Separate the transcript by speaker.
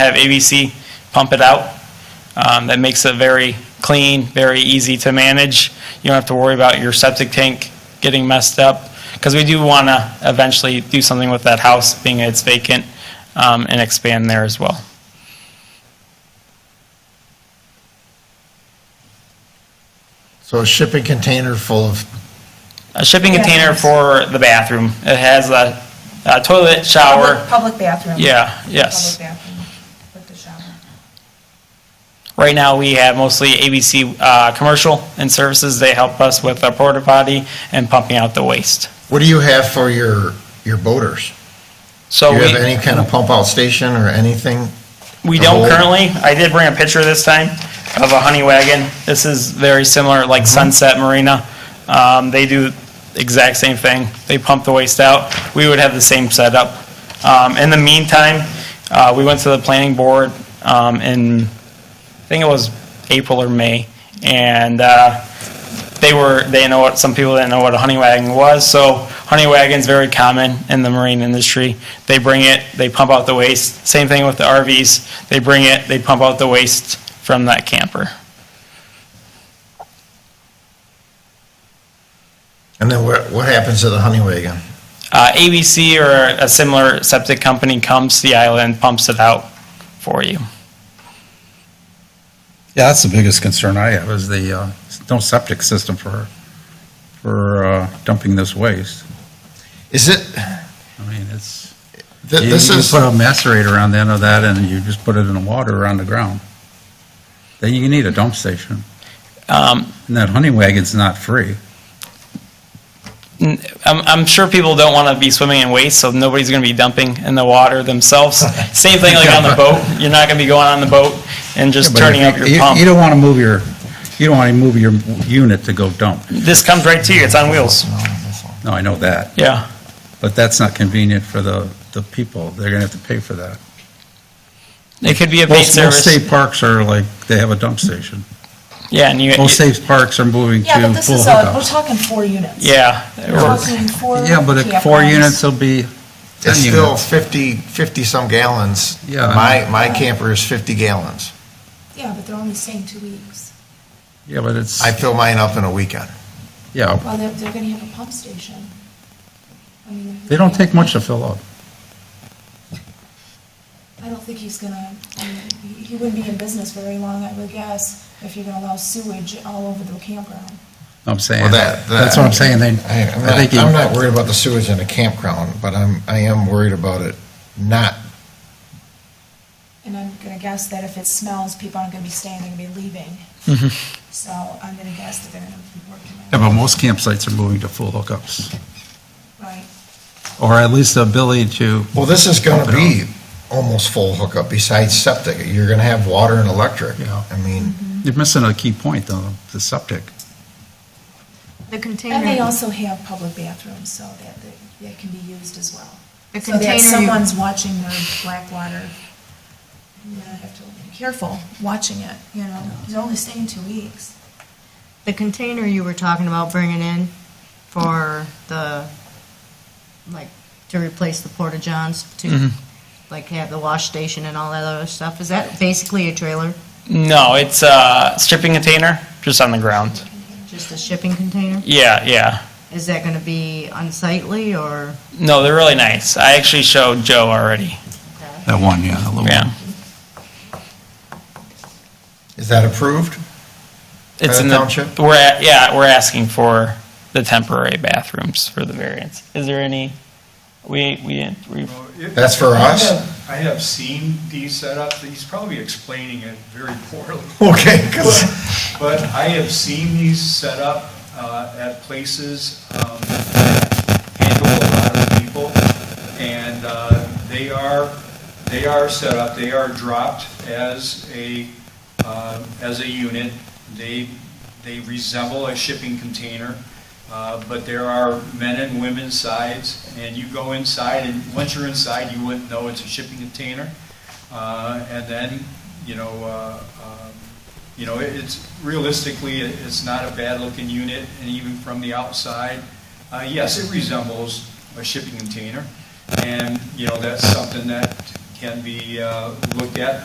Speaker 1: have ABC pump it out. Um, That makes it very clean, very easy to manage. You don't have to worry about your septic tank getting messed up, because we do want to eventually do something with that house, being it's vacant, um, and expand there as well.
Speaker 2: So a shipping container full of,
Speaker 1: A shipping container for the bathroom. It has a a toilet, shower,
Speaker 3: Public- Public bathroom.
Speaker 1: yeah, yes.
Speaker 3: Public bathroom with the shower.
Speaker 1: Right now, we have mostly ABC uh, Commercial and Services. They help us with our porta potty and pumping out the waste.
Speaker 2: what do you have for your, your boaters?
Speaker 1: So
Speaker 2: Do you
Speaker 4: Oh,
Speaker 2: have
Speaker 1: we,
Speaker 2: any kind of pump out station or anything?
Speaker 1: we don't
Speaker 2: Oh.
Speaker 1: currently, I did bring a picture this time of a honey wagon. This is very similar, like Sunset Marina. Um, They do exact same thing. They pump the waste out. We would have the same setup. Um, In the meantime, uh, we went to the planning board um, in, I think it was April or May, and uh, they were they know what some people didn't know what a honey wagon was. So honey wagon's very common in the marine industry. They bring it, they pump out the waste. Same thing with the RVs. They bring it, they pump out the waste from that camper.
Speaker 2: And then what, what happens to the honey wagon?
Speaker 1: Uh, ABC or a similar septic company comes to the island, pumps it out for you.
Speaker 4: Yeah, that's the biggest concern I have, is the, uh, no septic system for, for uh, dumping this waste.
Speaker 2: Is it,
Speaker 4: I mean, it's,
Speaker 2: th-
Speaker 4: you
Speaker 2: this
Speaker 4: you
Speaker 2: is,
Speaker 4: put a macerator on the end of that, and you just put it in the water on the ground. Then you need a dump station.
Speaker 1: Um,
Speaker 4: And that honey wagon's not free.
Speaker 1: n- I'm, I'm sure people don't want to be swimming in waste, so nobody's going to be dumping in the water themselves. Same thing like on the boat. You're not going to be going on the boat and just
Speaker 4: Yeah, but
Speaker 1: turning
Speaker 4: if
Speaker 1: up your
Speaker 4: you-
Speaker 1: pump.
Speaker 4: You don't want to move your, you don't want to move your unit to go dump.
Speaker 1: this comes right to you. It's on wheels.
Speaker 4: No, I know that,
Speaker 1: Yeah.
Speaker 4: but that's not convenient for the, the people. They're going to have to pay for that.
Speaker 1: It could be a paid
Speaker 4: Most, most
Speaker 1: service.
Speaker 4: state parks are like, they have a dump station.
Speaker 1: yeah, and you.
Speaker 4: Most state parks are moving to
Speaker 3: Yeah, but this
Speaker 4: full
Speaker 3: is, uh, we're
Speaker 4: hookups.
Speaker 3: talking four units.
Speaker 1: yeah.
Speaker 3: We're talking four.
Speaker 4: Yeah, but at four
Speaker 3: campgrounds.
Speaker 4: units will be ten
Speaker 2: it's still
Speaker 4: units.
Speaker 2: 50, 50-some gallons.
Speaker 4: Yeah.
Speaker 2: My, my camper is 50 gallons.
Speaker 3: Yeah, but they're only staying two weeks.
Speaker 4: Yeah, but it's,
Speaker 2: I fill mine up in a weekend.
Speaker 4: yeah,
Speaker 3: Well, they're, they're gonna have a pump station. I mean,
Speaker 4: they don't take much to fill up.
Speaker 3: I don't think he's gonna, I mean, he- he wouldn't be in business very long, I would guess, if you're gonna allow sewage all over the campground.
Speaker 4: I'm saying,
Speaker 2: Well, that-
Speaker 4: that's what I'm saying, they,
Speaker 2: I- I'm
Speaker 4: I
Speaker 2: not,
Speaker 4: think you,
Speaker 2: I'm not worried about the sewage in a campground, but I'm, I am worried about it not,
Speaker 3: And I'm gonna guess that if it smells, people aren't gonna be staying, they're gonna be leaving. So I'm gonna guess that they're gonna be working
Speaker 4: Mm-hmm. yeah,
Speaker 3: on it,
Speaker 4: but most campsites are moving to full hookups,
Speaker 3: right?
Speaker 4: or at least the ability to,
Speaker 2: well, this is gonna be almost full hookup besides septic. You're gonna have water and electric.
Speaker 4: Yeah.
Speaker 2: I mean,
Speaker 4: you're missing a key point, though, the septic.
Speaker 5: The
Speaker 3: And they
Speaker 5: container,
Speaker 3: also have public bathrooms, so that, that- that can be used as well.
Speaker 5: the
Speaker 3: So that
Speaker 5: container,
Speaker 3: someone's watching their black water, you know, have to be careful watching it, you know, he's only staying two weeks.
Speaker 5: the container you were talking about bringing in for the, like, to replace the porta johns to, like, have the wash station and all that other stuff, is that basically a trailer?
Speaker 1: No, it's a shipping container just on the ground.
Speaker 5: Just a shipping container?
Speaker 1: Yeah, yeah.
Speaker 5: Is that gonna be unsightly or?
Speaker 1: No, they're really nice. I actually showed Joe already.
Speaker 4: That one, yeah, a little
Speaker 1: Yeah.
Speaker 2: is that approved?
Speaker 1: It's
Speaker 2: the
Speaker 1: in the
Speaker 2: township?
Speaker 1: We're at, yeah, we're asking for the temporary bathrooms for the variance. Is there any? We we didn't. We,
Speaker 2: That's for us?
Speaker 6: I have seen these set up, he's probably explaining it very poorly,
Speaker 2: Okay, 'cause-
Speaker 6: but I have seen these set up uh, at places um, handle a lot of people, and uh, they are, they are set up, they are dropped as a, uh, as a unit. They, they resemble a shipping container, uh, but there are men and women sides, and you go inside, and once you're inside, you wouldn't know it's a shipping container. Uh, And then, you know, uh, um, you know, it- it's realistically, it- it's not a bad-looking unit, and even from the outside, uh, yes, it resembles a shipping container, and, you know, that's something that can be uh, looked at